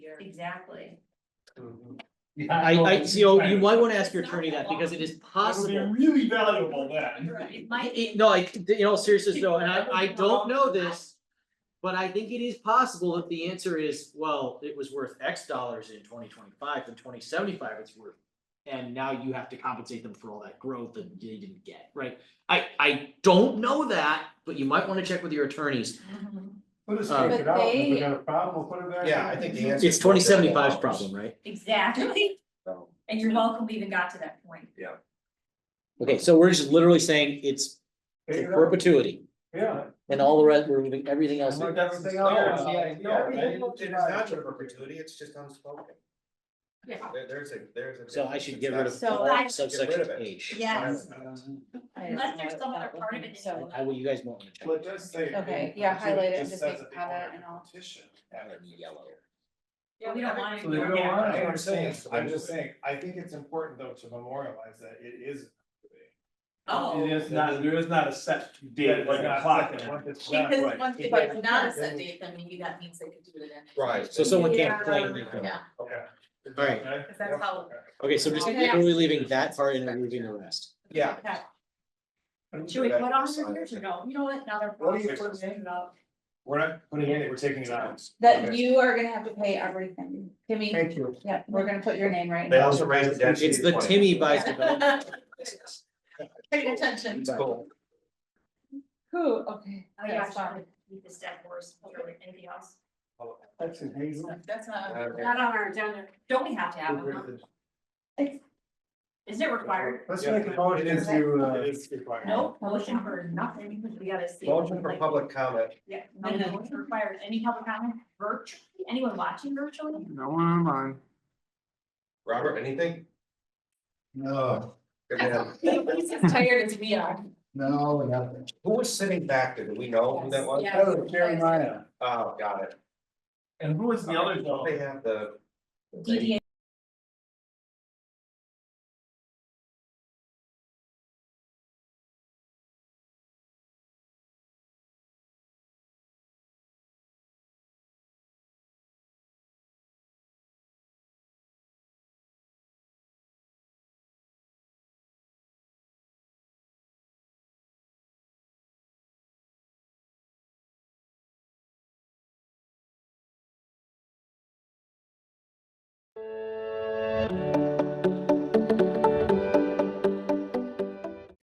Exactly. Mm-hmm. I, I, you know, you might wanna ask your attorney that, because it is It'll be possible. really valuable then. It I- might, I- no, I, you know, seriously, though, and I, I don't know this. But I think it is possible if the answer is, well, it was worth X dollars in twenty twenty-five, then twenty seventy-five it's worth. And now you have to compensate them for all that growth that they didn't get, right? I, I don't know that, but you might wanna check with your attornees. Mhm. Put us Uh, take it But out, and if we they- got a problem, we'll put it back. Yeah, in. I think the answer- It's twenty seventy-five's problem, right? exactly, So, and you're welcome, we even got to that point. Okay, so we're just literally saying it's Take it out. perpetuity Yeah. and all the rest, we're moving everything else. Like everything No, else. yeah, Yeah, no, we it- don't it is divide not it. a perpetuity, it's just unspoken. Yeah. There- there's a, there's a. So I should get rid of So all I- subsection Get rid of it. H. Yes. I don't Unless know there's some about other part of looking, it that So, I will, you guys won't wanna check. Well, it does say. Okay, yeah, highlight it, just just says make that they comment want and all. Petition. And yellow. Yeah, we don't want it. So they don't Yeah. want it, I I'm saying, understand. I'm just saying, I think it's important though to memorialize that it is. Oh, It is not, there is not a set date, like a clock. Right. Because once they Right. it's not a set date, then maybe that means they could do it in, Right. So someone can't can't complain. complain. yeah, Okay. All right, Okay. because that's how. okay, so just, Okay. we're leaving that part and removing the rest. Yeah. okay. Should we put on the years or no? You know what, another. What do you problem. put in We're not putting it in, we're taking it out. That you are gonna have to pay everything, Timmy, Thank you. yeah, we're gonna put your name right They now. also raised the density. It's the to 20. Timmy buys development. Pay attention. It's cool. Who, okay. Oh, yeah, that's fine. sorry, keep the step worse, or anything else. That's in Hazel. That's not, Okay. Not on our agenda. Don't we have to have one? huh? Isn't it required? Let's make a motion It is- into, uh. It's required. No, motion for nothing, because we gotta see. Motion for like- public comment. Yeah, no, no, motion required. Any public comment virtually? Anyone watching virtually? No one online. Robert, anything? No, Good man. he's as tired as we are. no, nothing. Who was sitting back there? Do we know who that was? Yes, yes. Oh, Jeremiah. Oh, got it. And who was Don't They have the. the DDA